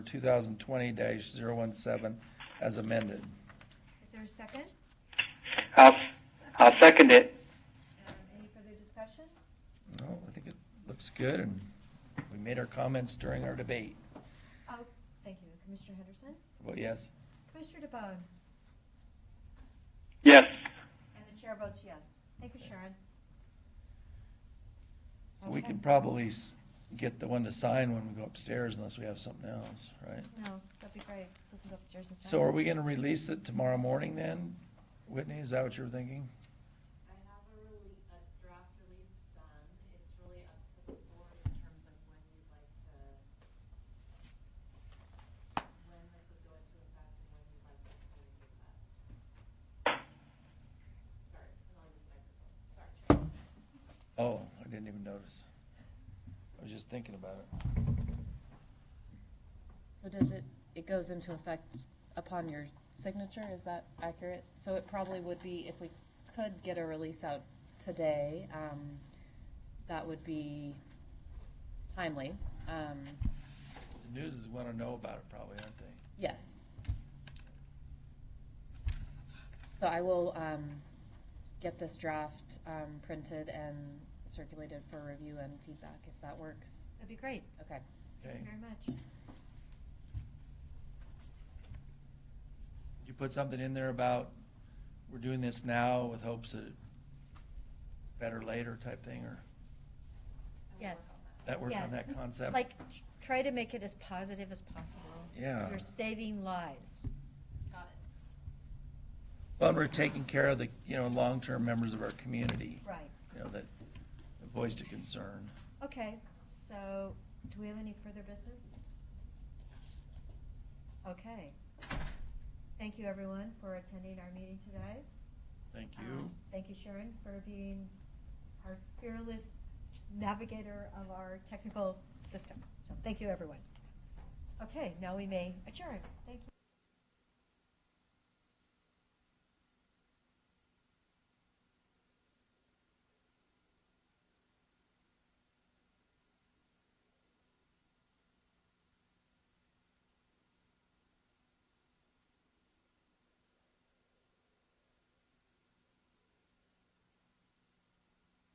2020-017 as amended. Is there a second? I'll, I'll second it. Um, Any further discussion? No, I think it looks good, and we made our comments during our debate. Oh, thank you. Commissioner Henderson? Vote yes. Commissioner DeBonne? Yes. And the chair votes yes. Thank you, Sharon. So we can Okay. probably s- get the one to sign when we go upstairs unless we have something else, right? No, that'd be great. We can go upstairs and sign. So are we gonna release it tomorrow morning then? Whitney, is that what you were thinking? I have a rele- a draft release done, it's really up to the board in terms of when you'd like to, when this would go into effect and when you'd like to communicate that. Sorry, and I'll use microphone, sorry, Chair. Oh, I didn't even notice. I was just thinking about it. So does it, it goes into effect upon your signature, is that accurate? So it probably would be, if we could get a release out today, um, that would be timely. Um, The news is wanna know about it probably, aren't they? yes. So I will, um, get this draft, um, printed and circulated for review and feedback, if that works. That'd be great. Okay. Thank Okay. you very much. You put something in there about, we're doing this now with hopes that it's better later type thing, or Yes. that work on Yes. that concept? Like, tr- try to make it as positive as possible. Yeah. You're saving lives. Got it. Well, we're taking care of the, you know, long-term members of our community. Right. You know, that that voiced a concern. Okay, so do we have any further business? Okay. Thank you, everyone, for attending our meeting today. Thank you. Um, Thank you, Sharon, for being our fearless navigator of our technical system. So thank you, everyone. Okay, now we may adjourn. Thank you.